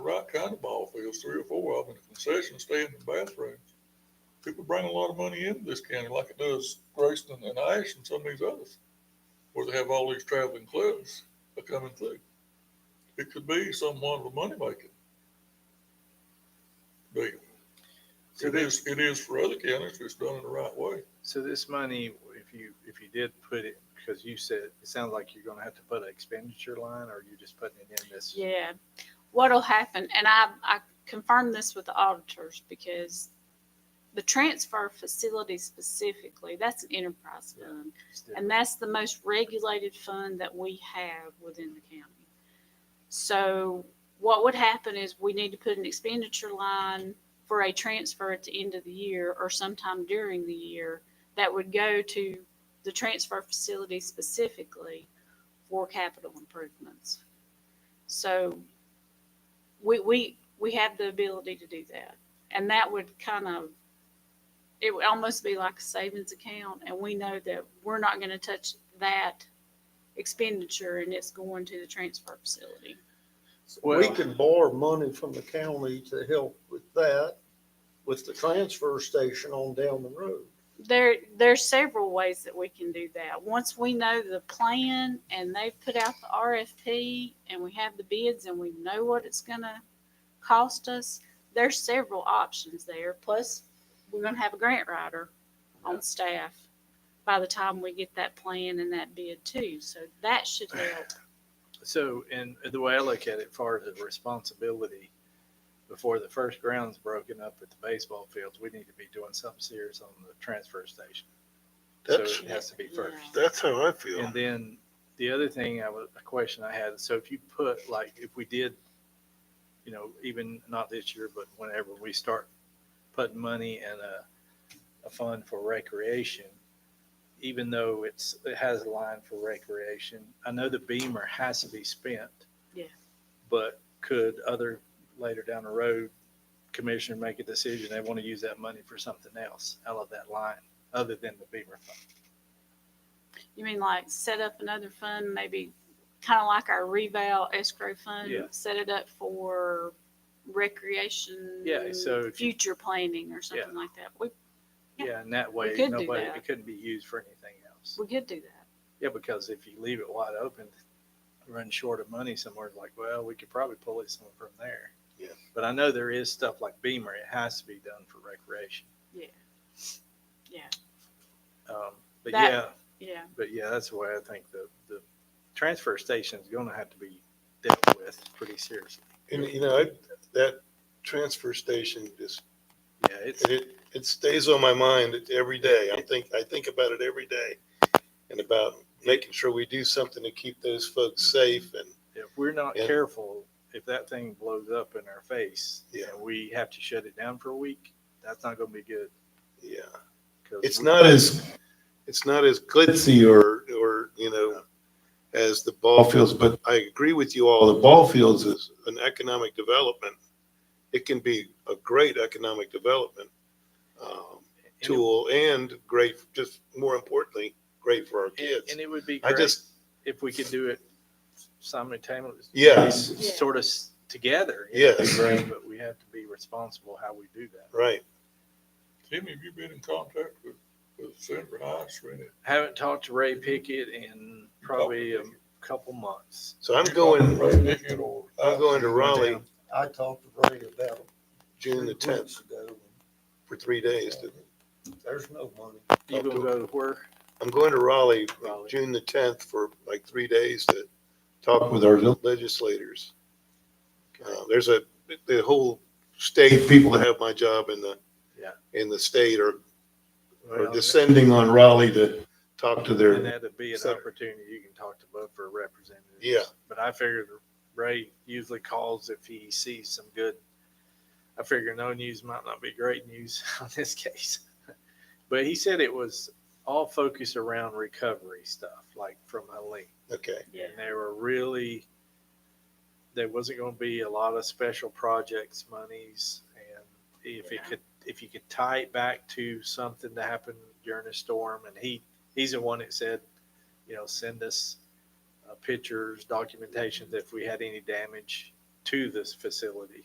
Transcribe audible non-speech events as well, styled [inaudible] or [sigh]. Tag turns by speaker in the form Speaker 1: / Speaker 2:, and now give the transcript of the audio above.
Speaker 1: there's three or four of them in the concession stand and bathrooms. People bring a lot of money into this county like it does Grayson and Ash and some of these others, where they have all these traveling clubs that come and through. It could be somewhat of a moneymaker. Deal.
Speaker 2: So
Speaker 1: It
Speaker 2: that-
Speaker 1: is, it is for other counties if it's done in the right way.
Speaker 2: So this money, if you, if you did put it, because you said, it sounds like you're gonna have to put an expenditure line, or you're just putting it in this?
Speaker 3: Yeah. What'll happen, and I, I confirmed this with the auditors because the transfer facility specifically, that's an enterprise
Speaker 2: Yeah.
Speaker 3: fund.
Speaker 2: it's different.
Speaker 3: And that's the most regulated fund that we have within the county. So what would happen is we need to put an expenditure line for a transfer at the end of the year or sometime during the year that would go to the transfer facility specifically for capital improvements. So we, we, we have the ability to do that. And that would kind of it would almost be like a savings account and we know that we're not going to touch that expenditure and it's going to the transfer facility.
Speaker 4: We can borrow money from the county to help with that, with the transfer station on down the road.
Speaker 3: There, there's several ways that we can do that. Once we know the plan and they've put out the RFP and we have the bids and we know what it's going to cost us, there's several options there. Plus, we're going to have a grant writer on staff by the time we get that plan and that bid too. So that should help.
Speaker 2: So, and the way I look at it, far as the responsibility, before the first ground's broken up at the baseball fields, we need to be doing something serious on the transfer station. So
Speaker 4: That's,
Speaker 2: it has to be first.
Speaker 4: that's how I feel.
Speaker 2: And then the other thing I was, a question I had, so if you put, like, if we did, you know, even not this year, but whenever we start putting money in a, a fund for recreation, even though it's, it has a line for recreation, I know the beamer has to be spent.
Speaker 3: Yeah.
Speaker 2: But could other, later down the road, commissioner make a decision, they want to use that money for something else out of that line, other than the beamer fund?
Speaker 3: You mean like set up another fund, maybe kind of like our reval escrow fund,
Speaker 2: Yeah.
Speaker 3: set it up for recreation?
Speaker 2: Yeah, so if you-
Speaker 3: Future planning or something like that. We, Yeah.
Speaker 2: Yeah, and that way,
Speaker 3: could do
Speaker 2: nobody,
Speaker 3: that.
Speaker 2: it couldn't be used for anything else.
Speaker 3: we could do that.
Speaker 2: Yeah, because if you leave it wide open, run short of money somewhere, it's like, well, we could probably pull it somewhere from there.
Speaker 4: Yeah.
Speaker 2: But I know there is stuff like Beamer, it has to be done for recreation.
Speaker 3: Yeah. Yeah.
Speaker 2: Um, but
Speaker 3: That-
Speaker 2: yeah,
Speaker 3: Yeah.
Speaker 2: but yeah, that's the way I think the, the transfer station is gonna have to be dealt with pretty seriously.
Speaker 5: And you know, I, that transfer station just,
Speaker 2: Yeah, it's,
Speaker 5: and it, it stays on my mind every day. I think, I think about it every day. And about making sure we do something to keep those folks safe and,
Speaker 2: if we're not
Speaker 5: Yeah.
Speaker 2: careful, if that thing blows up in our face,
Speaker 5: Yeah.
Speaker 2: and we have to shut it down for a week, that's not gonna be good.
Speaker 5: yeah.
Speaker 2: 'cause
Speaker 5: It's
Speaker 2: we-
Speaker 5: not as, it's not as glitzy or, or, you know, as the ball fields, but I agree with you all. The ball fields is an economic development. It can be a great economic development. Um,
Speaker 2: and it-
Speaker 5: tool and great, just more importantly, great for our
Speaker 2: And
Speaker 5: kids.
Speaker 2: and it would be
Speaker 5: I
Speaker 2: great.
Speaker 5: just,
Speaker 2: if we could do it simultaneously.
Speaker 5: Yes.
Speaker 3: Yeah.
Speaker 2: Sort of s- together. you know, it'd be
Speaker 5: Yes.
Speaker 2: great, But we have to be responsible how we do that.
Speaker 5: right,
Speaker 1: Timmy, have you been in contact with, with Sandra Heights or any?
Speaker 2: Haven't talked to Ray Pickett in probably a couple months.
Speaker 5: so I'm going,
Speaker 1: Ray Pickett or?
Speaker 5: I'm going to Raleigh
Speaker 2: Down.
Speaker 4: I talked to Ray about it
Speaker 5: June the
Speaker 4: three
Speaker 5: tenth
Speaker 4: weeks ago.
Speaker 5: for three days. to-
Speaker 4: There's no money.
Speaker 2: You gonna go to where?
Speaker 5: I'm going to Raleigh, uh,
Speaker 2: Raleigh.
Speaker 5: June the tenth for like three days to
Speaker 2: Oh,
Speaker 5: talk with our legislators. Uh, there's a, the whole state, people that have my job in the,
Speaker 2: Yeah.
Speaker 5: in the state are, are
Speaker 2: Well, Oh,
Speaker 5: descending on Raleigh to talk to
Speaker 2: And
Speaker 5: their,
Speaker 2: that'd be an
Speaker 5: Senator.
Speaker 2: opportunity. You can talk to both for representatives.
Speaker 5: Yeah.
Speaker 2: But I figured Ray usually calls if he sees some good. I figure no news might not be great news [laughs] on this case. But he said it was all focused around recovery stuff, like from Helene.
Speaker 5: okay,
Speaker 3: Yeah.
Speaker 2: And they were really, there wasn't going to be a lot of special projects monies. And if it
Speaker 3: Yeah.
Speaker 2: could, if you could tie it back to something that happened during a storm, and he, he's the one that said, you know, send us uh, pictures, documentation if we had any damage to this facility.